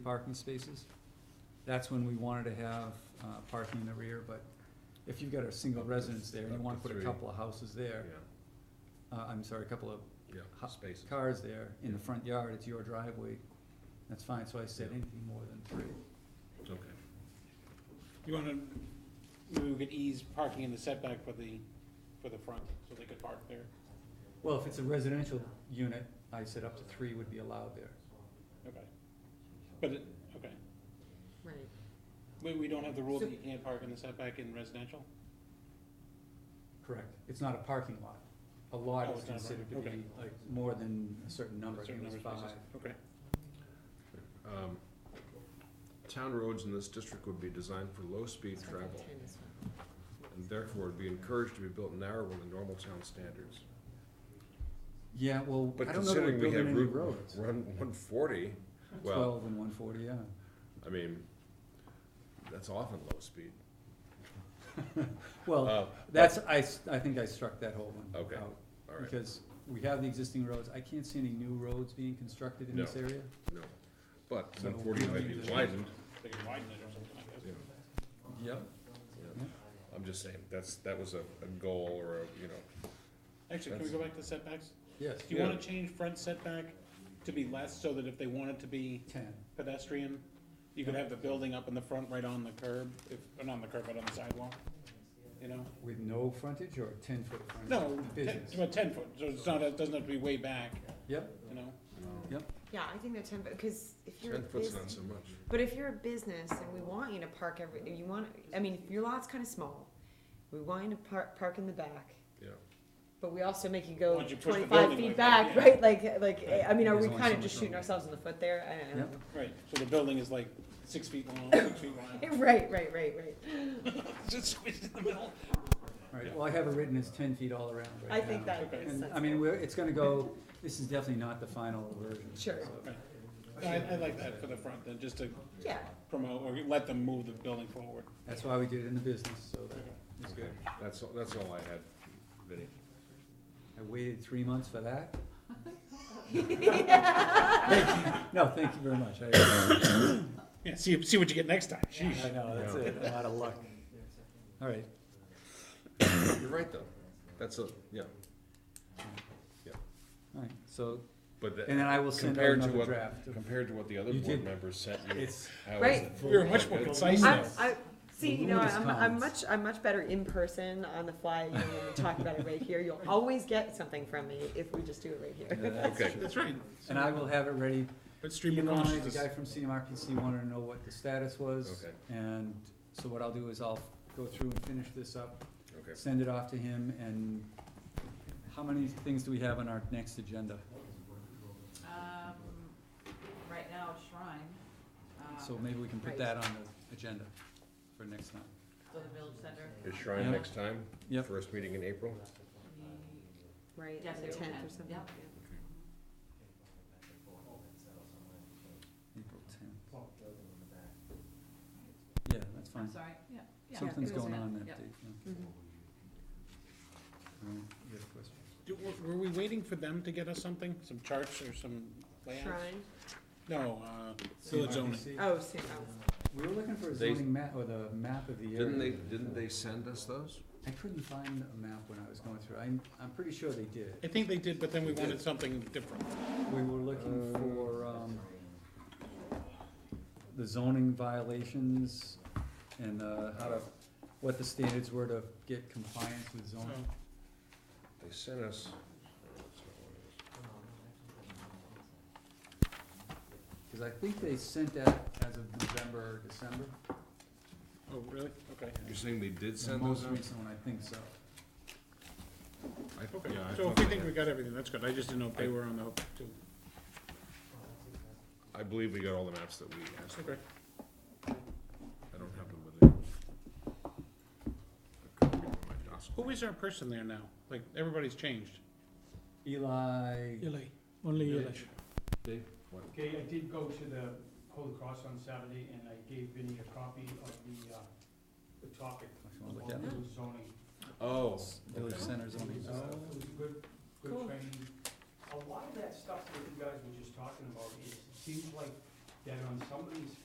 parking spaces. That's when we wanted to have, uh, parking in the rear, but if you've got a single Up to- residence there and up you to wanna put a three. couple of houses there, uh, I'm sorry, a couple of Yeah, Ho- yeah, spaces. cars there in the front yard, it's your driveway, that's fine, so I said Yeah. anything more than three. Okay. You wanna, maybe we could ease parking in the setback for the, for the front, so they could park there, Well, if it's a residential unit, I said up to three would be allowed there. okay. But, it- okay, Right, we, we don't have the rule that you can't park in the setback in residential? Correct. It's not a parking lot. A Oh, lot is it's not a considered to parking- be okay. like more than a certain number, I think Certain it was number of five. spaces. Okay, Um, Town roads in this district would be designed for low-speed so I travel, think ten is and therefore would be encouraged to be built narrower than normal town standards. Yeah, well, But I don't know that we're considering we building have any Route roads. one- 140, well, Twelve and one forty, yeah. I mean, that's often low speed. Well, Uh, that's, I, s- I think I struck that whole one Okay. out. All right, Because we have the existing roads. I can't see any new roads being constructed in No. this area. no. But So 140 we might need be to- widened, they can widen it or something, I you guess. know. Yep. Yeah. I'm just saying, that's, that was a, a goal or a, you know, Actually, can we go back to setbacks? Yes, Do you wanna Yeah. change front setback to be less, so that if they wanted to be ten. pedestrian, you could have the building up in the front right on the curb, if, or not on the curb, but on the sidewalk, you know? With no frontage or ten foot frontage? No, ten, Business. about ten foot, so it's not, it doesn't have to be way back, Yep, you know? Yeah, I think that ten, because if you're a ten foot's not bus- so much. but if you're a business and we want you to park every, you want, I mean, if your lot's kinda small, we want you to park, park in the back, Yeah, but we also make you go Why don't you push the twenty-five building feet like that, back, yeah. right, like, like, I mean, are There's only so we kinda much just shooting room. ourselves in the foot there? I don't Yep. know. Right, so the building is like six feet long, six feet wide, Right, right, right, right. just squeezed in the middle. all right, well, I have it written as ten feet all around right I now. think that Okay. is And, sensible. I mean, we're, it's gonna go, this is definitely not the final version. Sure. so- Right. No, I, I like that for the front, then, just to Yeah, promote, or let them move the building forward. That's why we did it in the business, so that is okay, good. that's, all- that's all I had, Vinnie. I waited three months for that. Thank you. No, thank you very much. I, Yeah, see, see what you get next time, I sheesh. know, that's it, a lot of luck. All right, You're right, though. That's a, yeah, all right, so, but that. and then I will send out Compared to another what, draft. compared to what the other You board did- members sent you. It's, how is Right. it? We were much more Good. concise I'm, now. I, see, you know, Voluminous I'm, I'm comments. much, I'm much better in person on the fly, you know, when we talk about it right here, you'll always get something from me if we just do it right yeah, here. that's Okay. true. That's right. And I will have it ready But stream Steve of Conley, the consciousness. guy from CMRPC wanted to know what the status was. Okay. And so what I'll do is I'll go through and finish this up, Okay, send it off to him, and how many things do we have on our next agenda? Um, right now, Shrine, So um, maybe we can put Right. that on the agenda for next time. for the Village Center. is Shrine Yeah. next time? Yep. First meeting in April? The- Right, Yes, the it tenth can, or something. yep. April tenth. Yeah, that's I'm fine. sorry, yeah, yeah. Mm-hmm. Something's it was going it, on that yep. day. yeah. Mhm. All right, you have a question? Do- were- Were we waiting for them to get us something, some charts or some layouts? Shrine, No, uh, village zoning. CMRPC. oh, see, oh, We were looking for a They- zoning map, or the map of the area. Didn't they, didn't they send us those? I couldn't find a map when I was going through. I'm, I'm pretty sure they did. I think they did, but then we wanted something different. We were Uh, looking for, um, the zoning violations and, uh, how to, what the standards were to get compliance with So, zoning. Oh. They sent us. Cause I think they sent that as of November, or December. Oh, really? Okay. You're saying they did The send most those out? recent one, I think so. I- Okay, yeah, I so if thought we they think had- we got everything, that's good, I just didn't know if they were on the hook too. I believe we got all the maps that we asked. Okay. I don't have them with me. I could be on my desk. Who is our person there now? Like, everybody's changed. Eli, Eli, only Eli. Dave? What? Okay, I did go to the Holy Cross on Saturday and I gave Vinnie a copy of the, uh, the topic. If you wanna look at on it. the Zoning. Oh, Village okay. Center zoning. It was, uh, it was a good, good Cool. training. A lot of that stuff that you guys were just talking about, is- it seems like that on somebody's